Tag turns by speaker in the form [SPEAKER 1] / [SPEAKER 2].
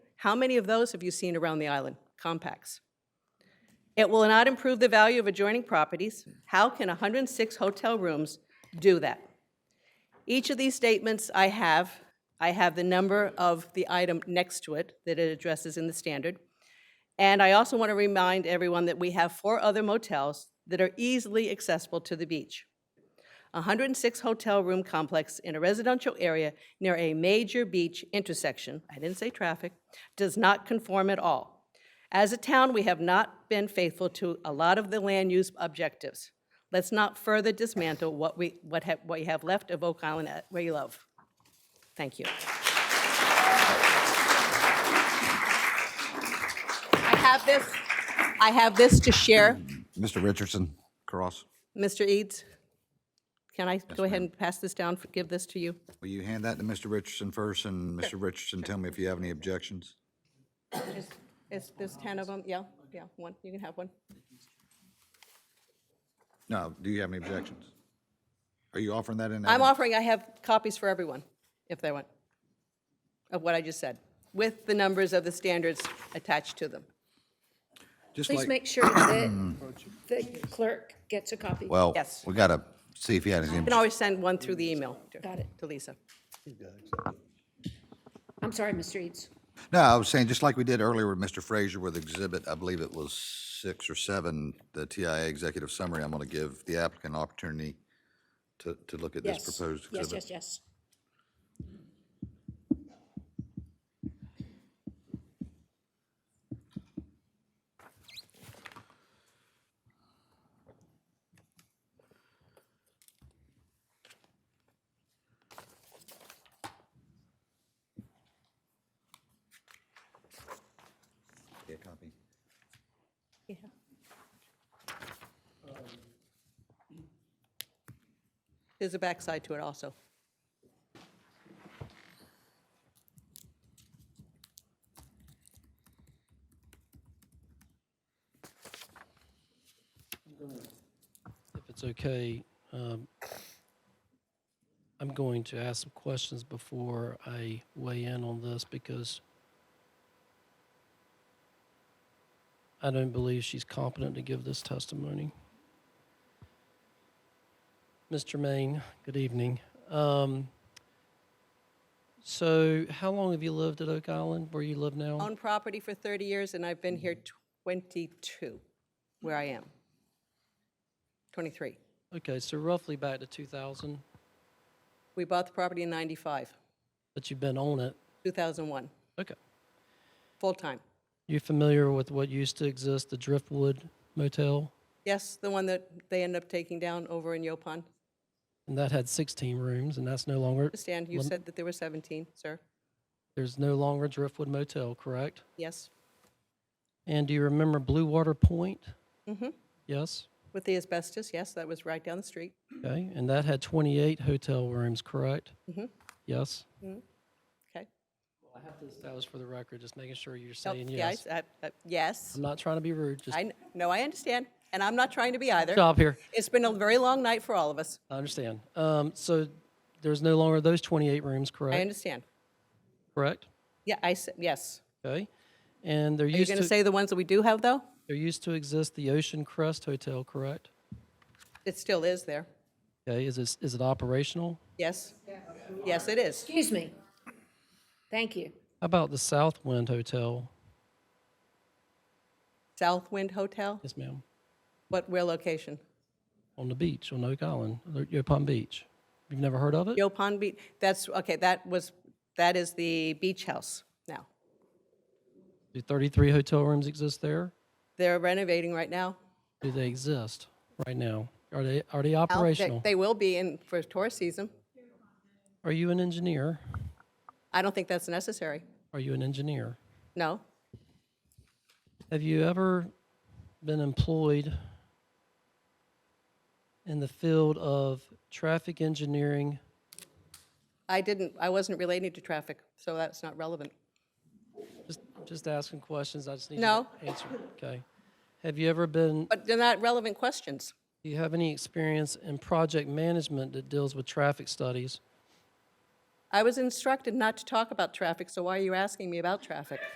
[SPEAKER 1] How many of those have you seen around the island? Compacts. It will not improve the value of adjoining properties. How can 106 hotel rooms do that? Each of these statements I have, I have the number of the item next to it that it addresses in the standard. And I also want to remind everyone that we have four other motels that are easily accessible to the beach. A 106 hotel room complex in a residential area near a major beach intersection, I didn't say traffic, does not conform at all. As a town, we have not been faithful to a lot of the land use objectives. Let's not further dismantle what we, what have, what you have left of Oak Island at Ray Love. Thank you. I have this, I have this to share.
[SPEAKER 2] Mr. Richardson, cross.
[SPEAKER 1] Mr. Eads, can I go ahead and pass this down, give this to you?
[SPEAKER 2] Will you hand that to Mr. Richardson first, and Mr. Richardson, tell me if you have any objections?
[SPEAKER 1] Is, there's 10 of them, yeah, yeah, one, you can have one.
[SPEAKER 2] No, do you have any objections? Are you offering that in?
[SPEAKER 1] I'm offering, I have copies for everyone, if they want, of what I just said, with the numbers of the standards attached to them.
[SPEAKER 2] Just
[SPEAKER 3] Please
[SPEAKER 2] like-
[SPEAKER 3] make sure that the clerk gets a copy.
[SPEAKER 2] Well,
[SPEAKER 1] Yes.
[SPEAKER 2] we gotta see if he had any.
[SPEAKER 1] You can always send one through the email to-
[SPEAKER 3] Got it.
[SPEAKER 1] to Lisa.
[SPEAKER 3] I'm sorry, Mr. Eads.
[SPEAKER 2] No, I was saying, just like we did earlier with Mr. Frazier with exhibit, I believe it was six or seven, the TIA executive summary, I'm gonna give the applicant an opportunity to, to look at this
[SPEAKER 3] Yes.
[SPEAKER 2] proposed exhibit.
[SPEAKER 3] Yes, yes, yes.
[SPEAKER 2] Yeah, copy.
[SPEAKER 1] There's a backside to it also.
[SPEAKER 4] if it's okay, um, I'm going to ask some questions before I weigh in on this because I don't believe she's competent to give this testimony. Mr. Maine, good evening. Um, so, how long have you lived at Oak Island, where you live now?
[SPEAKER 1] Owned property for 30 years, and I've been here 22, where I am. 23.
[SPEAKER 4] Okay, so roughly back to 2000,
[SPEAKER 1] We bought the property in 95,
[SPEAKER 4] but you've been on it.
[SPEAKER 1] 2001,
[SPEAKER 4] Okay.
[SPEAKER 1] full-time.
[SPEAKER 4] You familiar with what used to exist, the Driftwood Motel?
[SPEAKER 1] Yes, the one that they ended up taking down over in Yopon.
[SPEAKER 4] And that had 16 rooms, and that's no longer,
[SPEAKER 1] Understand, you said that there were 17, sir?
[SPEAKER 4] there's no longer Driftwood Motel, correct?
[SPEAKER 1] Yes,
[SPEAKER 4] And do you remember Blue Water Point?
[SPEAKER 1] Mhm.
[SPEAKER 4] Yes?
[SPEAKER 1] with the asbestos, yes, that was right down the street.
[SPEAKER 4] Okay, and that had 28 hotel rooms, correct?
[SPEAKER 1] Mhm.
[SPEAKER 4] Yes?
[SPEAKER 1] Okay.
[SPEAKER 4] That was for the record, just making sure you're
[SPEAKER 1] No,
[SPEAKER 4] saying
[SPEAKER 1] yeah, Oh, I
[SPEAKER 4] yes.
[SPEAKER 1] s- I- I- Yes,
[SPEAKER 4] I'm not trying to be rude, just
[SPEAKER 1] I, kn- no, I understand, and I'm not trying to be either.
[SPEAKER 4] stop here.
[SPEAKER 1] It's been a very long night for all of us,
[SPEAKER 4] I understand. Um, So there's no longer those 28 rooms,
[SPEAKER 1] I
[SPEAKER 4] correct?
[SPEAKER 1] understand.
[SPEAKER 4] Correct?
[SPEAKER 1] Yeah, I, s- yes.
[SPEAKER 4] Okay? And there
[SPEAKER 1] Are you
[SPEAKER 4] used
[SPEAKER 1] going to
[SPEAKER 4] to,
[SPEAKER 1] say the ones that we do have, though?
[SPEAKER 4] there used to exist the Ocean Crest Hotel, correct?
[SPEAKER 1] It still is there,
[SPEAKER 4] Okay, is it, is it operational?
[SPEAKER 1] yes? Yes, it is.
[SPEAKER 3] Excuse me. Thank you.
[SPEAKER 4] How about the Southwind Hotel?
[SPEAKER 1] Southwind Hotel,
[SPEAKER 4] Yes, ma'am.
[SPEAKER 1] what, where location?
[SPEAKER 4] On the beach, on Oak Island, or Yopon Beach. You've never heard of it?
[SPEAKER 1] Yopon Beach, that's, okay, that was, that is the beach house now.
[SPEAKER 4] Do 33 hotel rooms exist there?
[SPEAKER 1] They're renovating right now.
[SPEAKER 4] Do they exist right now? Are they, are they
[SPEAKER 1] Al, they-
[SPEAKER 4] operational?
[SPEAKER 1] They will be in, for tourist season.
[SPEAKER 4] Are you an engineer?
[SPEAKER 1] I don't think that's necessary.
[SPEAKER 4] Are you an engineer?
[SPEAKER 1] No?
[SPEAKER 4] Have you ever been employed in the field of traffic engineering?
[SPEAKER 1] I didn't, I wasn't relating to traffic, so that's not relevant.
[SPEAKER 4] Just, just asking questions, I just need you
[SPEAKER 1] No.
[SPEAKER 4] to answer, okay? Have you ever been
[SPEAKER 1] But they're not relevant questions.
[SPEAKER 4] Do you have any experience in project management that deals with traffic studies?
[SPEAKER 1] I was instructed not to talk about traffic, so why are you asking me about traffic?